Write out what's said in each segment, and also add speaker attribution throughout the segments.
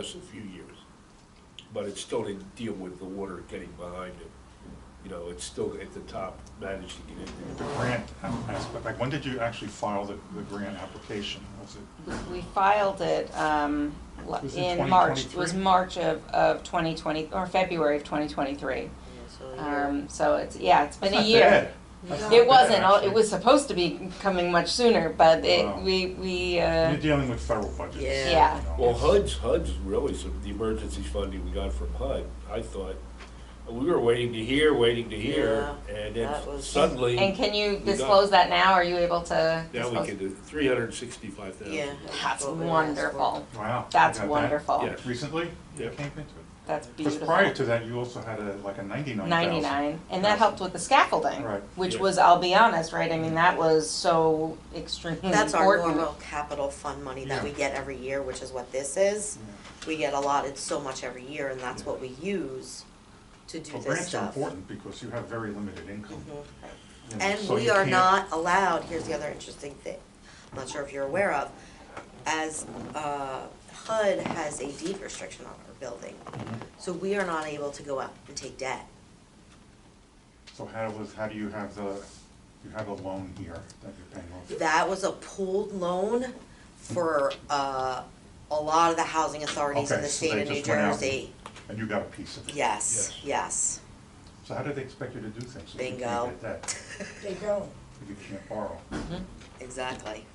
Speaker 1: us a few years, but it's still to deal with the water getting behind it. You know, it's still at the top, managed to get in
Speaker 2: The
Speaker 1: there.
Speaker 2: grant aspect, like, when did you actually file the, the grant application? Was it,
Speaker 3: We- We filed it um, l-
Speaker 2: Was it
Speaker 3: in March, it
Speaker 2: 2023?
Speaker 3: was March of, of 2020, or February of 2023. Um, So it's, yeah, it's been a
Speaker 2: That's not
Speaker 3: year.
Speaker 2: bad.
Speaker 3: It wasn't,
Speaker 2: Actually.
Speaker 3: it was supposed to be coming much sooner, but
Speaker 2: Wow.
Speaker 3: it, we, we, uh,
Speaker 2: You're dealing with federal budgets.
Speaker 4: Yeah.
Speaker 3: Yeah.
Speaker 2: you know.
Speaker 1: Well, HUD's, HUD's really, some, the emergency funding we got from HUD, I thought, we were waiting to hear, waiting to hear,
Speaker 4: Yeah,
Speaker 1: and then
Speaker 4: that was-
Speaker 1: suddenly,
Speaker 3: and can you
Speaker 1: got-
Speaker 3: disclose that now? Are you able to?
Speaker 1: now we
Speaker 3: disclose-
Speaker 1: can do three hundred and sixty-five thousand.
Speaker 4: Yeah.
Speaker 3: That's
Speaker 4: what we were asked for.
Speaker 3: wonderful.
Speaker 2: Wow. you
Speaker 3: That's
Speaker 2: got that
Speaker 3: wonderful.
Speaker 1: Yeah.
Speaker 2: Recently? You
Speaker 1: Yep.
Speaker 2: came into it.
Speaker 3: That's
Speaker 2: Because
Speaker 3: beautiful.
Speaker 2: prior to that, you also had a, like a ninety-nine thousand.
Speaker 3: 99 and that helped with the scaffolding
Speaker 2: Right.
Speaker 3: which
Speaker 1: Yeah.
Speaker 3: was i'll be honest right i mean that was so extremely
Speaker 4: That's our
Speaker 3: important
Speaker 4: normal capital fund money that we
Speaker 2: Yeah.
Speaker 4: get every year, which is what this is. We get allotted so much every year and that's what we use to do
Speaker 2: Well,
Speaker 4: this
Speaker 2: grants are
Speaker 4: stuff.
Speaker 2: important because you have very limited income.
Speaker 4: Mhm.
Speaker 2: you know,
Speaker 4: And
Speaker 2: so
Speaker 4: we
Speaker 2: you
Speaker 4: are
Speaker 2: can't-
Speaker 4: not allowed, here's the other interesting thing, I'm not sure if you're aware of, as uh, HUD has a deed restriction on our building,
Speaker 2: Mm-hmm.
Speaker 4: so we are not able to go out and take debt.
Speaker 2: So how was, how do you have the, you have a loan here that you're paying off?
Speaker 4: That was a pooled loan for uh, a lot of the housing authorities in
Speaker 2: Okay,
Speaker 4: the
Speaker 2: so
Speaker 4: state
Speaker 2: they
Speaker 4: of New
Speaker 2: just went out and-
Speaker 4: Jersey.
Speaker 2: And you got a piece of it?
Speaker 4: Yes, yes.
Speaker 2: So how do they expect you to do things? if you can't
Speaker 4: Bingo.
Speaker 2: get that,
Speaker 5: They don't.
Speaker 2: If you can't borrow?
Speaker 4: Exactly,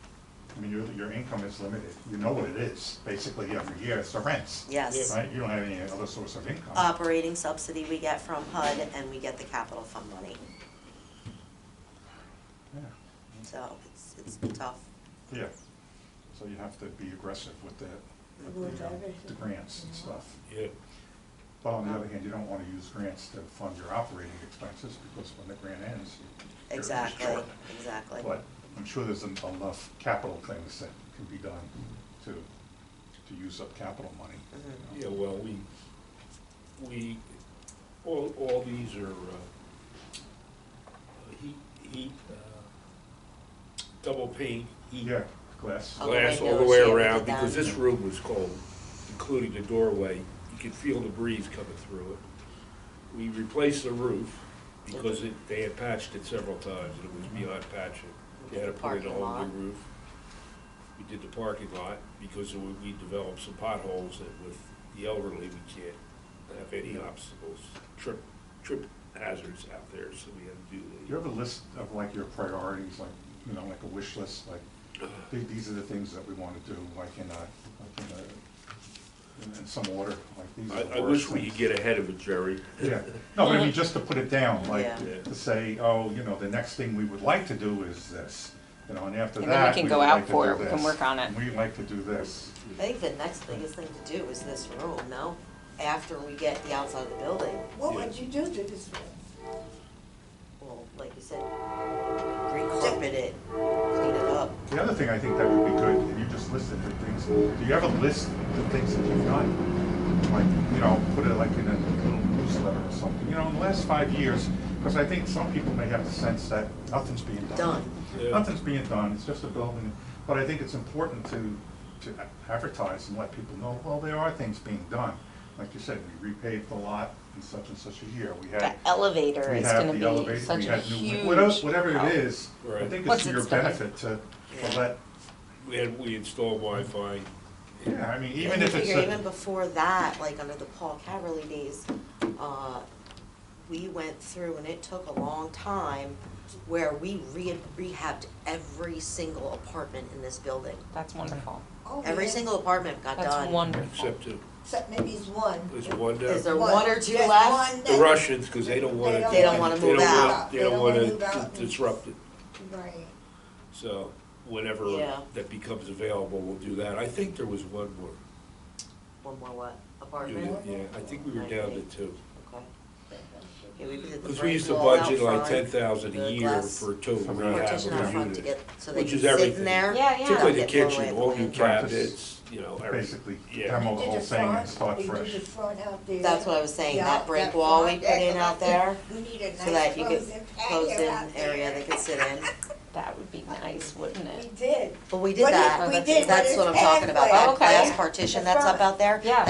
Speaker 2: I mean, your, your income is limited. You know what it is, basically, every year, it's the rents.
Speaker 4: yes.
Speaker 2: Right, you don't have any other source of income.
Speaker 4: Operating subsidy we get from HUD and we get the capital fund money,
Speaker 2: Yeah,
Speaker 4: so it's, it's tough.
Speaker 2: yeah. So you have to be aggressive with the, with
Speaker 5: With
Speaker 2: the, um,
Speaker 5: everything.
Speaker 2: the grants and stuff.
Speaker 1: Yeah,
Speaker 2: But on the other hand, you don't wanna use grants to fund your operating expenses, because when the grant ends, you- you're just
Speaker 4: Exactly,
Speaker 2: short.
Speaker 4: exactly.
Speaker 2: But I'm sure there's en- enough capital things that can be done to, to use up capital money. you
Speaker 4: Mhm.
Speaker 2: know.
Speaker 1: yeah, well, we, we, all, all these are, uh, heat, heat, uh, double pane, heat.
Speaker 2: Yeah, glass.
Speaker 4: Oh.
Speaker 1: glass all the
Speaker 4: windows,
Speaker 1: way
Speaker 4: yeah, we
Speaker 1: around,
Speaker 4: did that.
Speaker 1: because this room was cold, including the doorway. You could feel the breeze coming through it. We replaced the roof, because it, they had patched it several times, and it was beyond patching. They had to put in a
Speaker 4: Parking
Speaker 1: whole
Speaker 4: lot.
Speaker 1: new roof. We did the parking lot, because we we developed some potholes that with the elderly, we can't have any obstacles, trip, trip hazards out there, so we had to do
Speaker 2: Do
Speaker 1: the.
Speaker 2: you have a list of like your priorities, like, you know, like a wish list, like, th- these are the things that we wanna do, like in a, like in a, in- in some order, like these are the
Speaker 1: I, I wish
Speaker 2: worst
Speaker 1: we could
Speaker 2: things.
Speaker 1: get ahead of it, Jerry.
Speaker 2: Yeah, no, but I mean, just to put it down, like,
Speaker 4: Yeah.
Speaker 1: Yeah.
Speaker 2: to say, oh, you know, the next thing we would like to do is this, you know, and after
Speaker 3: And then we
Speaker 2: that,
Speaker 3: can
Speaker 2: we would
Speaker 3: go out
Speaker 2: like to
Speaker 3: for
Speaker 2: do
Speaker 3: it. We can
Speaker 2: this.
Speaker 3: work on it.
Speaker 2: We like to do this,
Speaker 4: I think the next biggest thing to do is this room, no? After we get the outside of the building,
Speaker 5: What would you do to this room?
Speaker 4: well, like you said, recarpet it, clean it up.
Speaker 2: The other thing I think that would be good, and you just listed the things, do you have a list of the things that you've done? Like, you know, put it like in a little newsletter or something, you know, in the last five years, because I think some people may have the sense that nothing's being done.
Speaker 4: Done.
Speaker 1: Yeah.
Speaker 2: Nothing's being done, it's just a building, but I think it's important to, to advertise and let people know, well, there are things being done. Like you said, we repaved the lot in such and such a year, we
Speaker 3: the
Speaker 2: had,
Speaker 3: elevator
Speaker 2: we
Speaker 3: is
Speaker 2: had
Speaker 3: going
Speaker 2: the
Speaker 3: to be
Speaker 2: elevator, we
Speaker 3: such a
Speaker 2: had new,
Speaker 3: huge
Speaker 2: whatever, whatever
Speaker 3: help.
Speaker 2: it is, I
Speaker 1: Right.
Speaker 2: think it's
Speaker 3: What's
Speaker 2: to
Speaker 3: it
Speaker 2: your
Speaker 3: spending?
Speaker 2: benefit to, to
Speaker 4: Yeah.
Speaker 2: let
Speaker 1: And we installed Wi-Fi.
Speaker 2: Yeah, I mean, even
Speaker 4: And you
Speaker 2: if it's
Speaker 4: figure even
Speaker 2: a,
Speaker 4: before that, like under the Paul Caverly days, uh, we went through and it took a long time where we re- rehabbed every single apartment in this building.
Speaker 3: that's wonderful
Speaker 5: Oh,
Speaker 4: Every
Speaker 5: yeah.
Speaker 4: single apartment got
Speaker 3: that's
Speaker 4: done.
Speaker 3: wonderful
Speaker 1: Except to,
Speaker 5: Except maybe it's one.
Speaker 1: there's one down.
Speaker 4: Is there one or two
Speaker 5: Just
Speaker 4: left?
Speaker 5: one
Speaker 1: The
Speaker 5: that-
Speaker 1: Russians, because they don't want to.
Speaker 5: They don't wanna
Speaker 4: move out.
Speaker 1: They don't want
Speaker 5: They don't wanna move
Speaker 1: to
Speaker 5: out.
Speaker 1: disrupt it.
Speaker 5: Right.
Speaker 1: So whenever
Speaker 4: Yeah.
Speaker 1: that becomes available, we'll do that. I think there was one more.
Speaker 4: One more what, apartment?
Speaker 5: Really?
Speaker 1: Yeah, I think we were down to two.
Speaker 4: Okay. Yeah, we did the
Speaker 1: Because we
Speaker 4: brick
Speaker 1: used to
Speaker 4: wall out
Speaker 1: budget like
Speaker 4: front,
Speaker 1: ten thousand a
Speaker 4: the
Speaker 1: year
Speaker 4: glass
Speaker 1: for two
Speaker 2: For
Speaker 1: rehab
Speaker 4: Partition out
Speaker 1: of
Speaker 4: front
Speaker 1: units.
Speaker 4: to get, so they
Speaker 1: Which
Speaker 4: can
Speaker 1: is
Speaker 4: sit
Speaker 1: everything.
Speaker 4: in there.
Speaker 3: Yeah, yeah.
Speaker 1: Particularly the
Speaker 4: Get blown away
Speaker 1: kitchen,
Speaker 4: at
Speaker 1: all new
Speaker 4: plants.
Speaker 1: cabinets, you know, everything.
Speaker 2: basically
Speaker 1: Yeah,
Speaker 2: demo the
Speaker 5: You did
Speaker 2: whole thing and start
Speaker 5: front,
Speaker 2: fresh.
Speaker 5: You did the front out there.
Speaker 4: That's what I was saying,
Speaker 5: Yeah,
Speaker 4: that brick wall we
Speaker 5: front,
Speaker 4: put in out there,
Speaker 5: We need a
Speaker 4: so that
Speaker 5: nice
Speaker 4: you could,
Speaker 5: frozen patio
Speaker 4: closed-in
Speaker 5: out there.
Speaker 4: area they could sit in.
Speaker 3: that would be nice wouldn't
Speaker 5: We
Speaker 3: it
Speaker 5: did.
Speaker 4: But we
Speaker 5: But
Speaker 4: did
Speaker 5: it-
Speaker 4: that.
Speaker 5: we did, but
Speaker 4: That's
Speaker 5: it's
Speaker 4: what I'm talking about,
Speaker 5: halfway.
Speaker 4: that glass
Speaker 3: Okay.
Speaker 4: partition that's up out there.
Speaker 3: Yeah.